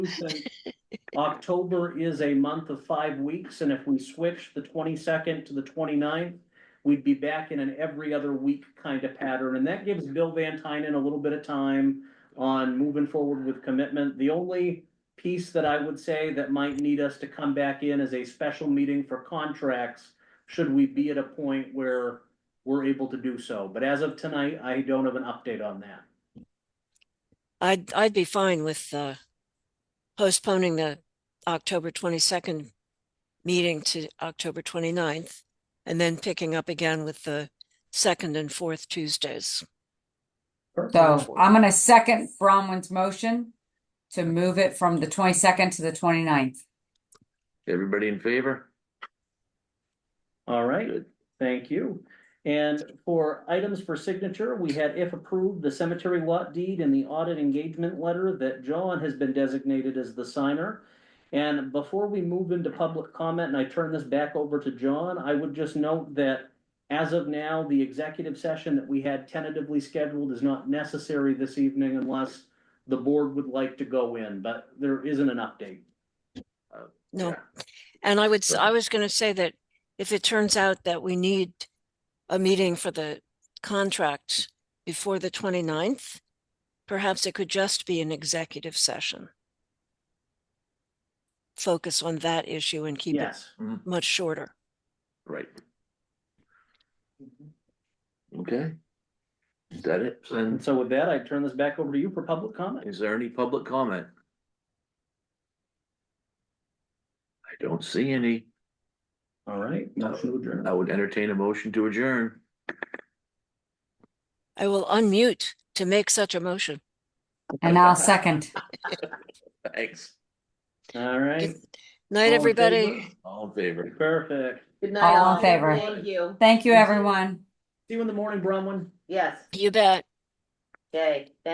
October is a month of five weeks, and if we switch the twenty-second to the 29th, we'd be back in an every other week kind of pattern, and that gives Bill Van Tynen a little bit of time on moving forward with commitment. The only piece that I would say that might need us to come back in is a special meeting for contracts, should we be at a point where we're able to do so. But as of tonight, I don't have an update on that. I'd, I'd be fine with, uh, postponing the October twenty-second meeting to October 29th and then picking up again with the second and fourth Tuesdays. So I'm gonna second Bronwyn's motion to move it from the twenty-second to the 29th. Everybody in favor? All right. Good. Thank you. And for items for signature, we had if approved, the cemetery lot deed and the audit engagement letter that John has been designated as the signer. And before we move into public comment and I turn this back over to John, I would just note that as of now, the executive session that we had tentatively scheduled is not necessary this evening unless the board would like to go in, but there isn't an update. No, Yeah. and I would, s- I Perfect. was gonna say that if it turns out that we need a meeting for the contract before the 29th, perhaps it could just be an executive session. Focus on that issue and keep it Yes. much shorter. Right. Okay. Is that it? And And so with that, I turn this back over to you for public comment. is there any public comment? I don't see any. All right, motion to adjourn. I would entertain a motion to adjourn. I will unmute to make such a motion. And I'll second. Thanks. All right, All Night, in favor? everybody. All in favor? perfect. Good night. All in favor. Thank you. Thank you, everyone. See you in the morning, Bronwyn. Yes, You bet. okay.